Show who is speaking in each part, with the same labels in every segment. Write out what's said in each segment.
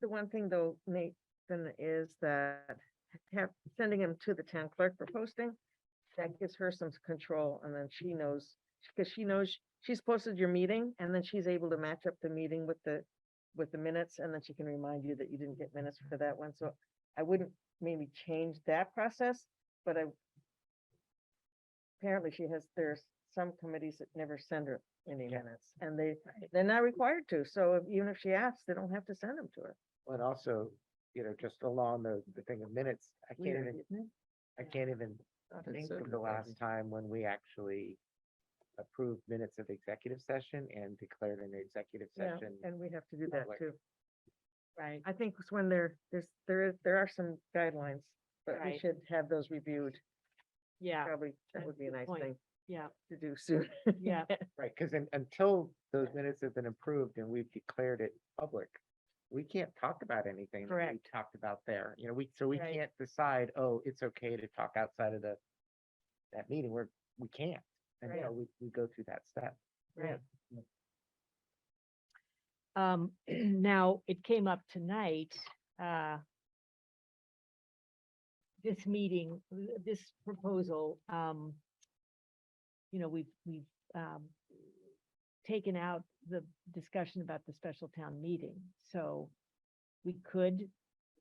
Speaker 1: The one thing though, Nathan, is that have, sending him to the town clerk for posting, that gives her some control and then she knows, because she knows she's posted your meeting and then she's able to match up the meeting with the, with the minutes and then she can remind you that you didn't get minutes for that one. So I wouldn't maybe change that process, but I apparently she has, there's some committees that never send her any minutes and they, they're not required to. So if- even if she asks, they don't have to send them to her.
Speaker 2: But also, you know, just along the, the thing of minutes, I
Speaker 1: We
Speaker 2: can't
Speaker 1: don't
Speaker 2: even,
Speaker 1: get them.
Speaker 2: I can't even think
Speaker 1: so
Speaker 2: of the last time when we actually approved minutes of the executive session and declared an executive
Speaker 1: Yeah,
Speaker 2: session.
Speaker 1: and we have to do that
Speaker 2: public.
Speaker 1: too.
Speaker 3: Right.
Speaker 1: I think it's when there, there's, there is, there are some guidelines, but we
Speaker 3: Right.
Speaker 1: should have those reviewed.
Speaker 3: Yeah,
Speaker 1: Probably, that
Speaker 3: that's
Speaker 1: would be a
Speaker 3: a good
Speaker 1: nice
Speaker 3: point.
Speaker 1: thing
Speaker 3: yeah,
Speaker 1: to do soon.
Speaker 3: yeah,
Speaker 2: Right, because until those minutes have been approved and we've declared it public, we can't talk about anything that we
Speaker 3: Correct.
Speaker 2: talked about there. You know, we, so we
Speaker 3: Right.
Speaker 2: can't decide, oh, it's okay to talk outside of the, that meeting, we're, we can't. And, you
Speaker 1: Right.
Speaker 2: know, we, we go through that step.
Speaker 3: right. Um, now, it came up tonight, uh, this meeting, th- this proposal, um, you know, we've, we've, um, taken out the discussion about the special town meeting, so we could,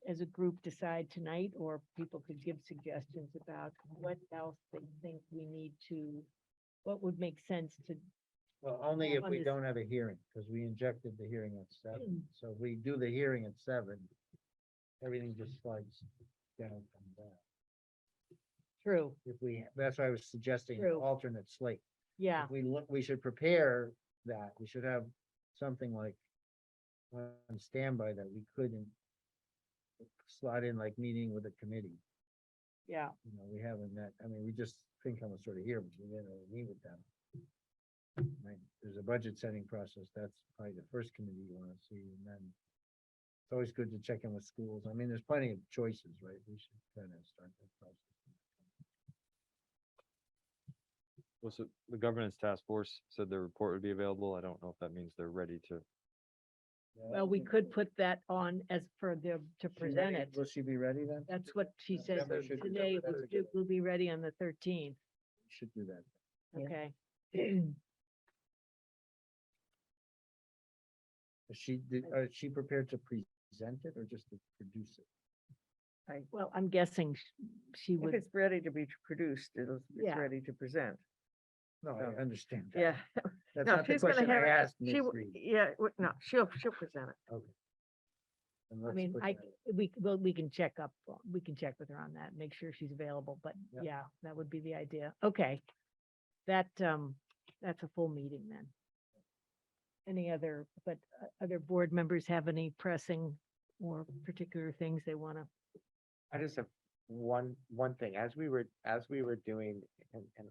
Speaker 3: as a group, decide tonight, or people could give suggestions about what else they think we need to, what would make sense to
Speaker 4: Well, only if
Speaker 3: on
Speaker 4: we
Speaker 3: this-
Speaker 4: don't have a hearing, because we injected the hearing at
Speaker 3: Hmm.
Speaker 4: seven, so if we do the hearing at seven, everything just slides down from that.
Speaker 3: True,
Speaker 4: If we, that's why I was suggesting an
Speaker 3: True.
Speaker 4: alternate slate.
Speaker 3: yeah,
Speaker 4: If We look, we should prepare that, we should have something like on standby that we couldn't slot in like meeting with a committee,
Speaker 3: yeah,
Speaker 4: you know, we haven't met, I mean, we just think I'm sort of here, but we didn't really meet with them. Right, there's a budget setting process, that's probably the first committee you wanna see, and then it's always good to check in with schools, I mean, there's plenty of choices, right, we should kind of start that process.
Speaker 5: Well, so the governance task force said their report would be available. I don't know if that means they're ready to.
Speaker 3: well, we could put that on as for them to
Speaker 4: She ready-
Speaker 3: present it.
Speaker 4: Will she be ready then?
Speaker 3: That's what she
Speaker 4: Yeah,
Speaker 3: said
Speaker 4: that should be
Speaker 3: today,
Speaker 4: done.
Speaker 3: we'll do- we'll be ready on the thirteenth,
Speaker 4: We Should do that.
Speaker 1: Yeah.
Speaker 3: okay?
Speaker 4: Is she, did- uh, is she prepared to present it or just to produce it?
Speaker 3: Well, I'm guessing sh- she
Speaker 1: If
Speaker 3: would,
Speaker 1: it's ready to be produced, it'll, it's
Speaker 3: Yeah.
Speaker 1: ready to present.
Speaker 4: No, I
Speaker 1: No.
Speaker 4: understand. that.
Speaker 1: Yeah.
Speaker 4: That's
Speaker 1: No,
Speaker 4: not the
Speaker 1: she's gonna
Speaker 4: question I
Speaker 1: have it-
Speaker 4: asked,
Speaker 1: She,
Speaker 4: Ms.
Speaker 1: w-
Speaker 4: Reed,
Speaker 1: yeah, w- no, she'll, she'll present it.
Speaker 4: and
Speaker 3: I
Speaker 4: let's
Speaker 3: mean,
Speaker 4: put
Speaker 3: I,
Speaker 4: that-
Speaker 3: we, c- well, we can check up, on- we can check with her on that, make sure she's available, but
Speaker 4: Yeah.
Speaker 3: yeah, that would be the idea, okay. That, um, that's a full meeting then. Any other, but uh, other board members have any pressing or particular things they wanna
Speaker 2: I just have one, one thing, as we were, as we were doing, and, and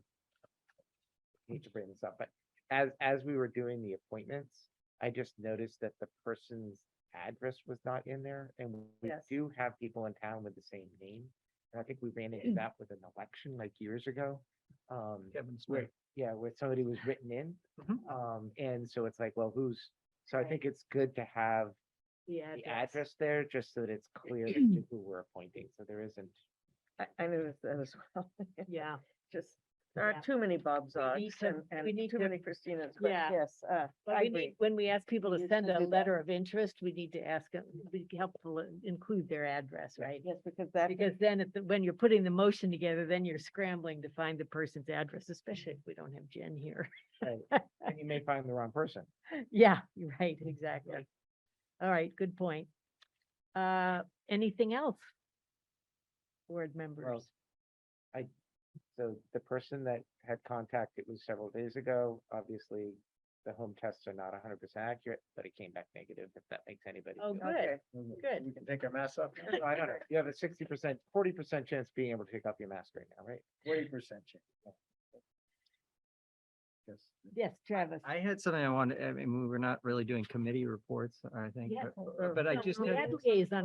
Speaker 2: I hate to bring this up, but as, as we were doing the appointments, I just noticed that the person's address was not in there, and we
Speaker 1: Yes.
Speaker 2: do have people in town with the same name. And I think we ran into that with an election like years ago, um,
Speaker 4: Kevin Smith.
Speaker 2: where, yeah, where somebody was written in. Um, and so it's like, well, who's, so I
Speaker 3: Right.
Speaker 2: think it's good to have
Speaker 3: The
Speaker 2: the address there, just so that it's clear as to who we're appointing, so there isn't
Speaker 1: I, I noticed that as well.
Speaker 3: Yeah,
Speaker 1: Just, there
Speaker 3: Yeah.
Speaker 1: aren't too many Bob
Speaker 3: need
Speaker 1: Zogs
Speaker 3: to-
Speaker 1: and,
Speaker 3: we
Speaker 1: and
Speaker 3: need
Speaker 1: too
Speaker 3: to-
Speaker 1: many Christinas, but
Speaker 3: Yeah.
Speaker 1: yes, uh,
Speaker 3: but
Speaker 1: I
Speaker 3: we
Speaker 1: agree.
Speaker 3: need, when we ask people
Speaker 1: We
Speaker 3: to
Speaker 1: need to
Speaker 3: send a
Speaker 1: do that.
Speaker 3: letter of interest, we need to ask, it- it'd be helpful to include their address, right?
Speaker 1: Yes, because that,
Speaker 3: Because then if, the- when you're putting the motion together, then you're scrambling to find the person's address, especially if we don't have Jen here.
Speaker 2: and you may find the wrong person.
Speaker 3: Yeah, you're right, exactly. All right, good point. Uh, anything else? Board members,
Speaker 2: So the person that had contact, it was several days ago, obviously, the home tests are not hundred percent accurate, but it came back negative, if that makes anybody.
Speaker 3: Oh,
Speaker 2: feel
Speaker 3: good.
Speaker 2: better.
Speaker 1: okay,
Speaker 3: good.
Speaker 4: We can take our masks off.
Speaker 2: No, I don't know, you have a sixty percent, forty percent chance of being able to take off your mask right now, right?
Speaker 4: Forty percent chance. Yes.
Speaker 3: Yes, Travis.
Speaker 6: I had something I wanted, I mean, we were not really doing committee reports, I think,
Speaker 3: Yes,
Speaker 6: but-
Speaker 1: uh,
Speaker 6: but, but I
Speaker 3: No,
Speaker 6: just,
Speaker 3: we
Speaker 6: had-
Speaker 3: had liaison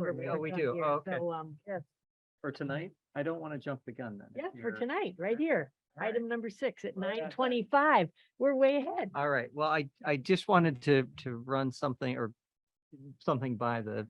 Speaker 6: Oh, we
Speaker 3: reports on
Speaker 6: do.
Speaker 3: here,
Speaker 6: Oh, okay.
Speaker 3: So, um,
Speaker 6: for tonight, I don't want to jump the gun then. if
Speaker 3: yeah, for
Speaker 6: you're-
Speaker 3: tonight, right here.
Speaker 6: All right.
Speaker 3: Item number six at
Speaker 1: Right
Speaker 3: nine
Speaker 1: on.
Speaker 3: twenty-five. We're way ahead.
Speaker 6: All right, well, I, I just wanted to, to run something or something by the